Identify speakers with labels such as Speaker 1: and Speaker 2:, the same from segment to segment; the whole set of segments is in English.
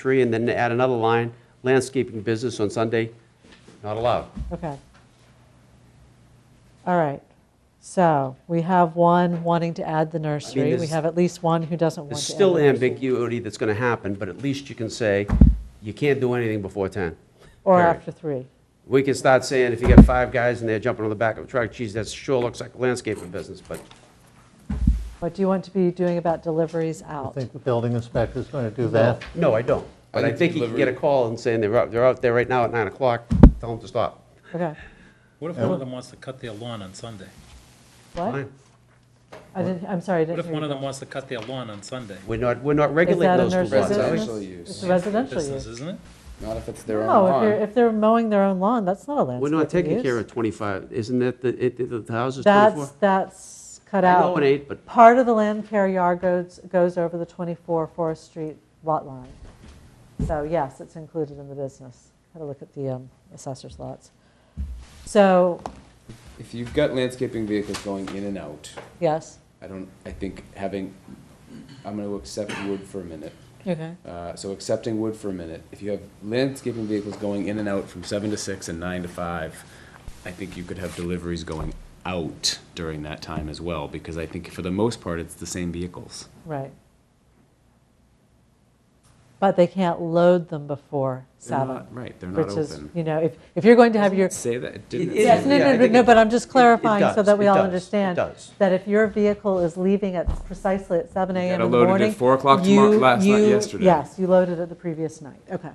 Speaker 1: tree, and then add another line, landscaping business on Sunday, not allowed.
Speaker 2: Okay. All right. So we have one wanting to add the nursery. We
Speaker 1: there's-
Speaker 2: have at least one who doesn't want to.
Speaker 1: There's
Speaker 2: add
Speaker 1: still
Speaker 2: the nursery.
Speaker 1: ambiguity that's going to happen, but at least you can say, you can't do anything before 10.
Speaker 2: Or
Speaker 1: period.
Speaker 2: after three.
Speaker 1: We can start saying, if you got five guys and they're jumping on the back of a truck, geez, that sure looks like a landscaping business, but
Speaker 2: What do you want to be doing about deliveries
Speaker 3: I
Speaker 2: out?
Speaker 3: think the building inspector's going to do that.
Speaker 1: No, I don't. But I
Speaker 4: think
Speaker 1: think you can get a
Speaker 4: delivery-
Speaker 1: call and saying they're out, they're out there right now at nine o'clock, tell them to stop.
Speaker 2: Okay.
Speaker 5: What if one of them wants to cut their lawn on Sunday?
Speaker 2: What?
Speaker 1: Fine.
Speaker 2: I didn't, I'm sorry, I
Speaker 5: What
Speaker 2: didn't
Speaker 5: if
Speaker 2: hear
Speaker 5: one
Speaker 2: you.
Speaker 5: of them wants to cut their lawn on Sunday?
Speaker 1: We're not, we're not
Speaker 2: Is
Speaker 1: regulating
Speaker 2: that a
Speaker 1: those two
Speaker 2: nursery
Speaker 1: laws.
Speaker 4: It's
Speaker 1: are we?
Speaker 2: business?
Speaker 4: actually used.
Speaker 2: It's a residential
Speaker 5: Business,
Speaker 2: use.
Speaker 5: isn't it?
Speaker 4: Not if it's their own
Speaker 2: No, if
Speaker 4: lawn.
Speaker 2: they're, if they're mowing their own lawn, that's not a landscape
Speaker 1: We're not taking care of 25, isn't that, the, it- the the house is 24?
Speaker 2: That's, that's cut
Speaker 1: I
Speaker 2: out.
Speaker 1: know it ain't, but-
Speaker 2: Part of the land care yard goes, goes over the 24 Forest Street lot line. So yes, it's included in the business. Have a look at the um, assessor's lots. So,
Speaker 4: If you've got landscaping vehicles going in and out,
Speaker 2: yes.
Speaker 4: I don't, I think having, I'm gonna accept wood for a minute.
Speaker 2: Okay.
Speaker 4: Uh, so accepting wood for a minute, if you have landscaping vehicles going in and out from seven to six and nine to five, I think you could have deliveries going out during that time as well, because I think for the most part, it's the same vehicles.
Speaker 2: Right. But they can't load them before
Speaker 4: They're not-
Speaker 2: seven,
Speaker 4: Right, they're not
Speaker 2: which is,
Speaker 4: open.
Speaker 2: you know, if, if you're going to have your,
Speaker 4: Say that, it didn't.
Speaker 1: It-
Speaker 2: Yes,
Speaker 1: Yeah,
Speaker 2: no,
Speaker 1: I
Speaker 2: no, no,
Speaker 1: think
Speaker 2: no,
Speaker 1: it-
Speaker 2: but I'm just clarifying so
Speaker 1: does,
Speaker 2: that we
Speaker 1: it
Speaker 2: all
Speaker 1: does, it
Speaker 2: understand.
Speaker 1: does.
Speaker 2: That if your vehicle is leaving at precisely at seven AM in
Speaker 4: gotta
Speaker 2: the
Speaker 4: load it
Speaker 2: morning.
Speaker 4: at 4 o'clock tomorrow-
Speaker 2: you-
Speaker 4: last night-
Speaker 2: you-
Speaker 4: yesterday.
Speaker 2: Yes, you loaded it the previous night, okay,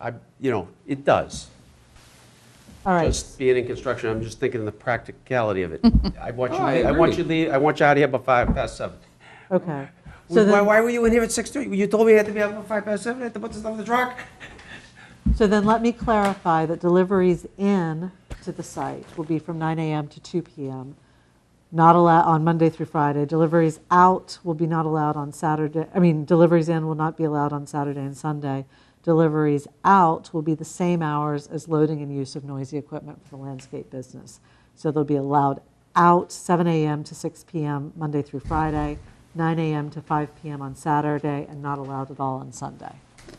Speaker 1: I, you know, it does.
Speaker 2: all right.
Speaker 1: Just being in construction, I'm just thinking of the practicality of it. I want you,
Speaker 4: Oh, I
Speaker 1: I want
Speaker 4: agree.
Speaker 1: you leave, I want you out of here by five past seven.
Speaker 2: Okay. So
Speaker 1: Why,
Speaker 2: then,
Speaker 1: why were you in here at six thirty? You told me I had to be out by five past seven, I had to put this stuff in the truck.
Speaker 2: so then let me clarify that deliveries in to the site will be from nine AM to two PM. Not allowed, on Monday through Friday. Deliveries out will be not allowed on Saturday, I mean, deliveries in will not be allowed on Saturday and Sunday. Deliveries out will be the same hours as loading and use of noisy equipment for the landscape business. So they'll be allowed out 7 AM to 6 PM Monday through Friday, 9 AM to 5 PM on Saturday, and not allowed at all on Sunday. Is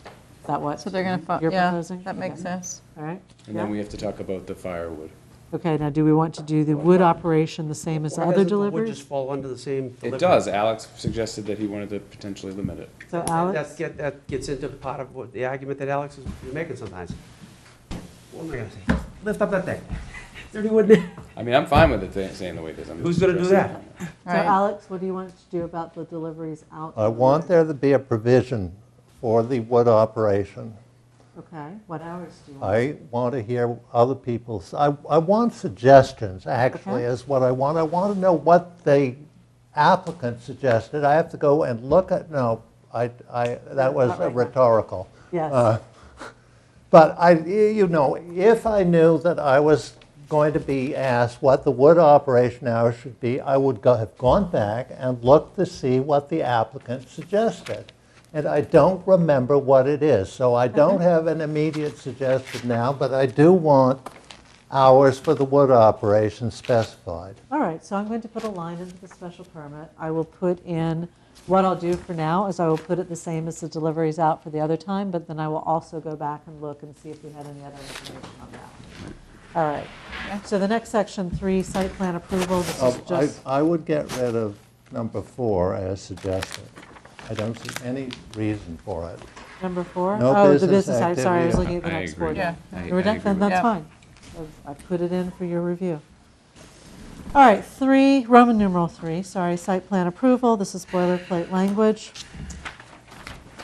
Speaker 2: that what?
Speaker 6: So they're going to,
Speaker 2: Mhm. You're
Speaker 6: yeah,
Speaker 2: proposing?
Speaker 6: that makes
Speaker 2: Okay.
Speaker 6: sense.
Speaker 2: All right.
Speaker 4: And then
Speaker 2: Yeah.
Speaker 4: we have to talk about the firewood.
Speaker 2: Okay, now do we want to do the wood operation the same as other
Speaker 1: Would
Speaker 2: deliveries?
Speaker 1: just fall under the same delivery.
Speaker 4: It does, Alex suggested that he wanted to potentially limit it.
Speaker 2: So
Speaker 1: That's,
Speaker 2: Alex,
Speaker 1: get- that gets into part of what, the argument that Alex is making sometimes. What am I gonna say? Lift up that thing. Is there any wood in there?
Speaker 4: I mean, I'm fine with it th- staying the way it is. I'm
Speaker 1: Who's gonna do
Speaker 4: suggesting-
Speaker 1: that?
Speaker 2: so
Speaker 6: Right.
Speaker 2: Alex, what do you want to do about the deliveries out?
Speaker 3: I want there to be a provision for the wood operation.
Speaker 2: Okay, what hours do you want?
Speaker 3: I want to hear other people's, I, I want suggestions,
Speaker 2: Okay.
Speaker 3: actually, is what I want. I want to know what the applicant suggested. I have to go and look at, no, I, I, that was
Speaker 2: Not
Speaker 3: a
Speaker 2: right now.
Speaker 3: rhetorical.
Speaker 2: Yes.
Speaker 3: Uh, But I, you know, if I knew that I was going to be asked what the wood operation hours should be, I would go, have gone back and looked to see what the applicant suggested. And I don't remember what it is, so I don't have an immediate suggestion now, but I do want hours for the wood operation specified.
Speaker 2: All right, so I'm going to put a line into the special permit. I will put in, what I'll do for now is I will put it the same as the deliveries out for the other time, but then I will also go back and look and see if we had any other information on that. All right, so the next section, three, site plan approval, this is
Speaker 3: Um, I,
Speaker 2: just,
Speaker 3: I would get rid of number four as suggested. I don't see any reason for it.
Speaker 2: number four?
Speaker 3: No
Speaker 2: Oh, the
Speaker 3: business
Speaker 2: business, I'm sorry, I was
Speaker 3: activity.
Speaker 2: looking at the
Speaker 4: I
Speaker 2: next
Speaker 4: agree.
Speaker 2: board.
Speaker 6: Yeah.
Speaker 4: I- I
Speaker 2: We're done,
Speaker 4: agree
Speaker 2: then
Speaker 4: with
Speaker 2: that's
Speaker 6: that.
Speaker 2: fine. I I put it in for your review. All right, three, Roman numeral three, sorry, site plan approval, this is boilerplate language.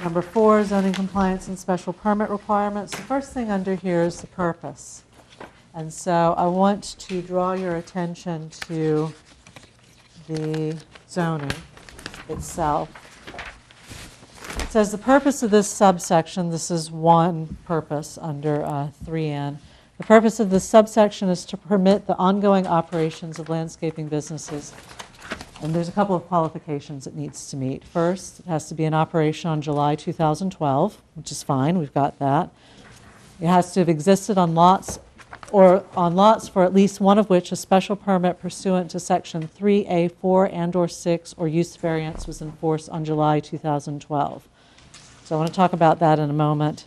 Speaker 2: Number four, zoning compliance and special permit requirements. The first thing under here is the purpose. And so I want to draw your attention to the zoning itself. It says the purpose of this subsection, this is one purpose under uh, 3N. The purpose of this subsection is to permit the ongoing operations of landscaping businesses and there's a couple of qualifications it needs to meet. First, it has to be in operation on July 2012, which is fine, we've got that. It has to have existed on lots, or on lots for at least one of which a special permit pursuant to Section 3A4 and/or 6 or use variance was in force on July 2012. So I want to talk about that in a moment.